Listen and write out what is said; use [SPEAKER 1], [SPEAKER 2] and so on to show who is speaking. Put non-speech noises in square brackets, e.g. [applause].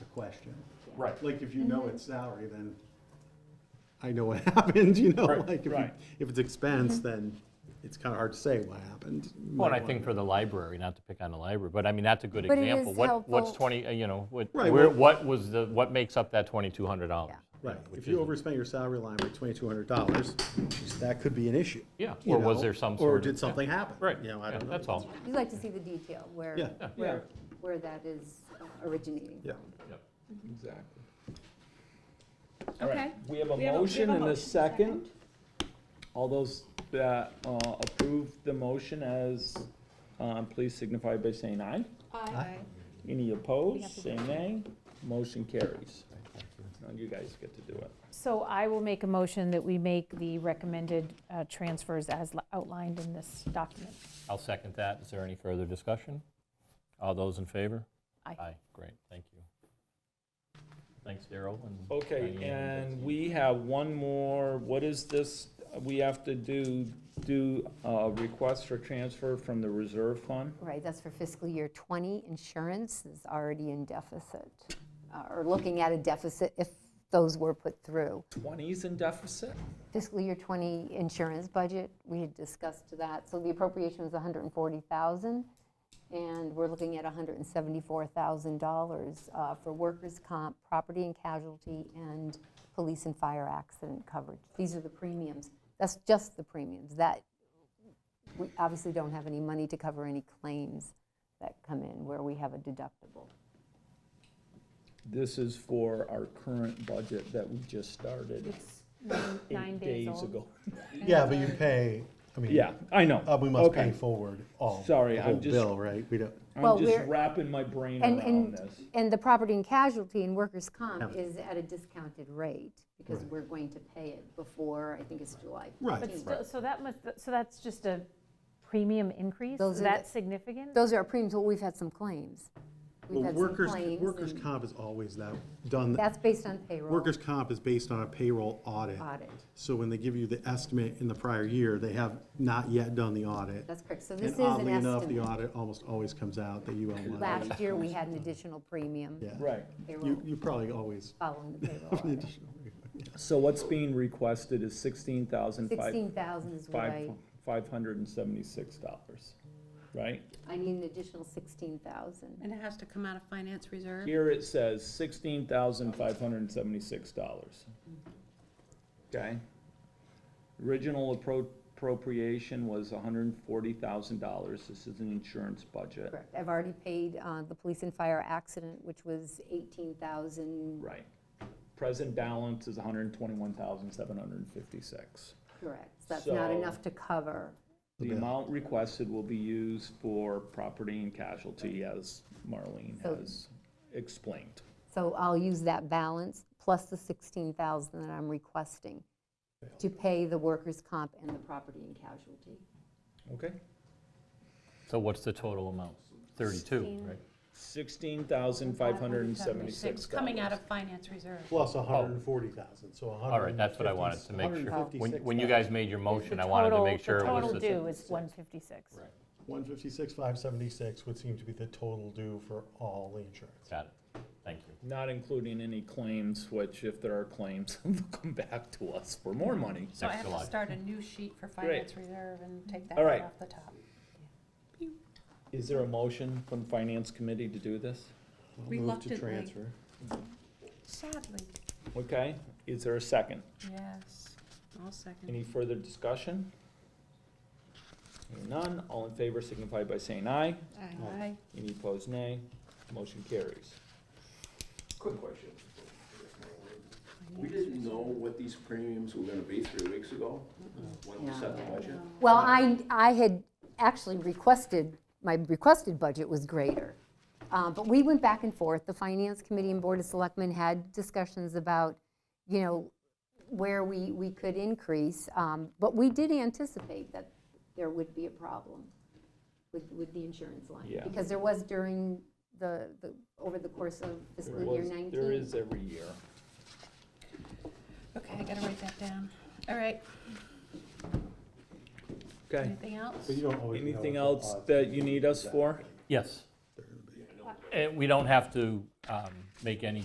[SPEAKER 1] question.
[SPEAKER 2] Right.
[SPEAKER 1] Like, if you know
[SPEAKER 3] Mm-hmm.
[SPEAKER 1] it's salary, then I know what [laughs] happened, you know,
[SPEAKER 2] Right,
[SPEAKER 1] like, if, you-
[SPEAKER 2] right.
[SPEAKER 1] if it's expense, then it's kind of hard to say what happened. You
[SPEAKER 4] Well, and I
[SPEAKER 1] might
[SPEAKER 4] think
[SPEAKER 1] wanna-
[SPEAKER 4] for the library, not to pick on the library, but I mean, that's a good
[SPEAKER 3] But it
[SPEAKER 4] example.
[SPEAKER 3] is
[SPEAKER 4] What, what's
[SPEAKER 3] helpful.
[SPEAKER 4] 20, uh, you know, what,
[SPEAKER 1] Right,
[SPEAKER 4] where,
[SPEAKER 1] well-
[SPEAKER 4] what was the, what makes up that $2,200?
[SPEAKER 1] Right,
[SPEAKER 4] which
[SPEAKER 1] if you
[SPEAKER 4] isn't-
[SPEAKER 1] overspend your salary line by twenty-two hundred dollars, that could be an issue.
[SPEAKER 4] Yeah,
[SPEAKER 1] you
[SPEAKER 4] or was
[SPEAKER 1] know,
[SPEAKER 4] there some
[SPEAKER 1] Or
[SPEAKER 4] sort of-
[SPEAKER 1] did
[SPEAKER 4] yeah.
[SPEAKER 1] something happen?
[SPEAKER 4] Right,
[SPEAKER 1] You know, I
[SPEAKER 4] yeah,
[SPEAKER 1] don't know.
[SPEAKER 4] that's all.
[SPEAKER 3] You like to see the detail where,
[SPEAKER 1] Yeah. Yeah.
[SPEAKER 3] where, where that is uh, originating.
[SPEAKER 1] Yeah.
[SPEAKER 5] Exactly.
[SPEAKER 2] All right.
[SPEAKER 6] Okay.
[SPEAKER 5] We have a
[SPEAKER 6] We have a- we have
[SPEAKER 5] motion and a
[SPEAKER 6] motion,
[SPEAKER 5] second. All those that uh, approve the motion as, uh, please signify by saying aye.
[SPEAKER 6] Aye.
[SPEAKER 5] Any
[SPEAKER 6] have to
[SPEAKER 5] opposed, say nay. Motion carries. Now you guys get to do it.
[SPEAKER 7] So I will make a motion that we make the recommended uh, transfers as li- outlined in this document.
[SPEAKER 4] I'll second that. Is there any further discussion? All those in favor?
[SPEAKER 7] Aye.
[SPEAKER 4] great, thank you. Thanks, Daryl and
[SPEAKER 5] Okay,
[SPEAKER 4] Diane
[SPEAKER 5] and
[SPEAKER 4] Betsy.
[SPEAKER 5] we have one more, what is this, we have to do, do a request for transfer from the reserve fund?
[SPEAKER 3] Right, that's for fiscal year '20. Insurance is already in deficit, uh, or looking at a deficit if those were put through.
[SPEAKER 5] Twenties in deficit?
[SPEAKER 3] Fiscal year '20 insurance budget, we had discussed that. So the appropriation was 140,000, and we're looking at $174,000 uh, for workers' comp, property and casualty, and police and fire accident coverage. These are the premiums. That's just the premiums. That we obviously don't have any money to cover any claims that come in where we have a deductible.
[SPEAKER 5] This is for our current budget that we just started
[SPEAKER 7] It's nine- nine
[SPEAKER 5] eight
[SPEAKER 7] days
[SPEAKER 5] days
[SPEAKER 7] old.
[SPEAKER 5] ago. [laughs]
[SPEAKER 1] Yeah, but you pay, I mean.
[SPEAKER 5] Yeah, I know.
[SPEAKER 1] Uh, we must pay
[SPEAKER 5] Okay.
[SPEAKER 1] forward all.
[SPEAKER 5] Sorry,
[SPEAKER 1] the
[SPEAKER 5] I'm
[SPEAKER 1] whole
[SPEAKER 5] just-
[SPEAKER 1] Bill, right, we don't.
[SPEAKER 3] Well,
[SPEAKER 5] I'm just
[SPEAKER 3] we're-
[SPEAKER 5] wrapping my brain
[SPEAKER 3] And,
[SPEAKER 5] around
[SPEAKER 3] and,
[SPEAKER 5] this.
[SPEAKER 3] and the property and casualty and workers' comp
[SPEAKER 1] Haven't.
[SPEAKER 3] is at a discounted rate because we're going to pay it before, I think it's July.
[SPEAKER 1] Right.
[SPEAKER 7] But still, so that must, so that's just a premium increase?
[SPEAKER 3] Those
[SPEAKER 7] Is
[SPEAKER 3] are
[SPEAKER 7] that
[SPEAKER 3] the-
[SPEAKER 7] significant?
[SPEAKER 3] Those are our premiums, well, we've had some claims. We've
[SPEAKER 1] Well,
[SPEAKER 3] had some
[SPEAKER 1] workers,
[SPEAKER 3] claims.
[SPEAKER 1] workers'
[SPEAKER 3] and
[SPEAKER 1] comp is always that, done,
[SPEAKER 3] That's based on payroll.
[SPEAKER 1] workers' comp is based on a payroll audit.
[SPEAKER 3] Audit.
[SPEAKER 1] So when they give you the estimate in the prior year, they have not yet done the audit.
[SPEAKER 3] That's correct, so this
[SPEAKER 1] And
[SPEAKER 3] is an
[SPEAKER 1] oddly enough, the
[SPEAKER 3] estimate.
[SPEAKER 1] audit almost always comes out that you owe money.
[SPEAKER 3] Last year, we had an additional premium.
[SPEAKER 1] Yeah.
[SPEAKER 5] Right.
[SPEAKER 1] You,
[SPEAKER 3] Payroll,
[SPEAKER 1] you probably always
[SPEAKER 3] following
[SPEAKER 1] [laughs]
[SPEAKER 3] the payroll
[SPEAKER 1] have an
[SPEAKER 3] audit.
[SPEAKER 1] additional.
[SPEAKER 5] So what's being requested is sixteen thousand five,
[SPEAKER 3] 16,000 is what I,
[SPEAKER 5] five, five hundred and seventy-six dollars, right?
[SPEAKER 3] I need an additional 16,000.
[SPEAKER 6] And it has to come out of finance reserve?
[SPEAKER 5] Here it says sixteen thousand five hundred and seventy-six dollars. Okay? Original appro- appropriation was hundred and forty thousand dollars. This is an insurance budget.
[SPEAKER 3] Correct, I've already paid uh, the police and fire accident, which was 18,000,
[SPEAKER 5] Right. Present balance is hundred and twenty-one thousand seven hundred and fifty-six.
[SPEAKER 3] correct. So That's not
[SPEAKER 5] So-
[SPEAKER 3] enough to cover.
[SPEAKER 5] The amount requested will be used for property and casualty as Marlene
[SPEAKER 3] So-
[SPEAKER 5] has explained.
[SPEAKER 3] So I'll use that balance plus the 16,000 that I'm requesting to pay the workers' comp and the property and casualty.
[SPEAKER 5] Okay?
[SPEAKER 4] So what's the total amount? 32, right?
[SPEAKER 5] Sixteen thousand five hundred and seventy-six
[SPEAKER 6] It's
[SPEAKER 5] dollars.
[SPEAKER 6] coming out of finance reserve.
[SPEAKER 1] Plus a hundred and forty thousand, so a hundred.
[SPEAKER 4] Oh. All right, that's what I wanted to make sure. When, when you guys made your motion, I wanted to make sure it was
[SPEAKER 7] The total
[SPEAKER 4] the-
[SPEAKER 7] due is 156.
[SPEAKER 4] Right.
[SPEAKER 1] One fifty-six, five seventy-six would seem to be the total due for all the insurance.
[SPEAKER 4] Got it, thank you.
[SPEAKER 5] Not including any claims, which if there are claims, [laughs] they'll come back to us for more money.
[SPEAKER 6] So I
[SPEAKER 4] Next
[SPEAKER 6] have
[SPEAKER 4] July.
[SPEAKER 6] to start a new sheet for
[SPEAKER 5] Great.
[SPEAKER 6] finance reserve and take that
[SPEAKER 5] All right.
[SPEAKER 6] one off the top.
[SPEAKER 5] Is there a motion from finance committee to do this?
[SPEAKER 6] Reluctantly.
[SPEAKER 1] transfer.
[SPEAKER 6] Sadly,
[SPEAKER 5] Okay, is there a second?
[SPEAKER 6] yes. I'll second.
[SPEAKER 5] Any further discussion? Hearing None, all in favor signify by saying aye.
[SPEAKER 6] Aye.
[SPEAKER 5] Any opposed, nay. Motion carries.
[SPEAKER 8] Quick question. We didn't know what these premiums were gonna be three weeks ago, when we set the budget.
[SPEAKER 3] Well, I, I had actually requested, my requested budget was greater. Uh, But we went back and forth. The Finance Committee and Board of Selectmen had discussions about, you know, where we, we could increase. Um, But we did anticipate that there would be a problem with, with the insurance line.
[SPEAKER 5] Yeah.
[SPEAKER 3] Because there was during the, the- over the course of
[SPEAKER 5] There
[SPEAKER 3] fiscal year
[SPEAKER 5] was-
[SPEAKER 3] 19.
[SPEAKER 5] There is every year.
[SPEAKER 6] Okay, I gotta write that down. All right,
[SPEAKER 5] Okay,
[SPEAKER 6] anything else?
[SPEAKER 1] But you don't always know what
[SPEAKER 5] anything
[SPEAKER 1] the
[SPEAKER 5] else
[SPEAKER 1] odds
[SPEAKER 5] that you need us for?
[SPEAKER 4] Uh, Yes. And we don't have to um, make any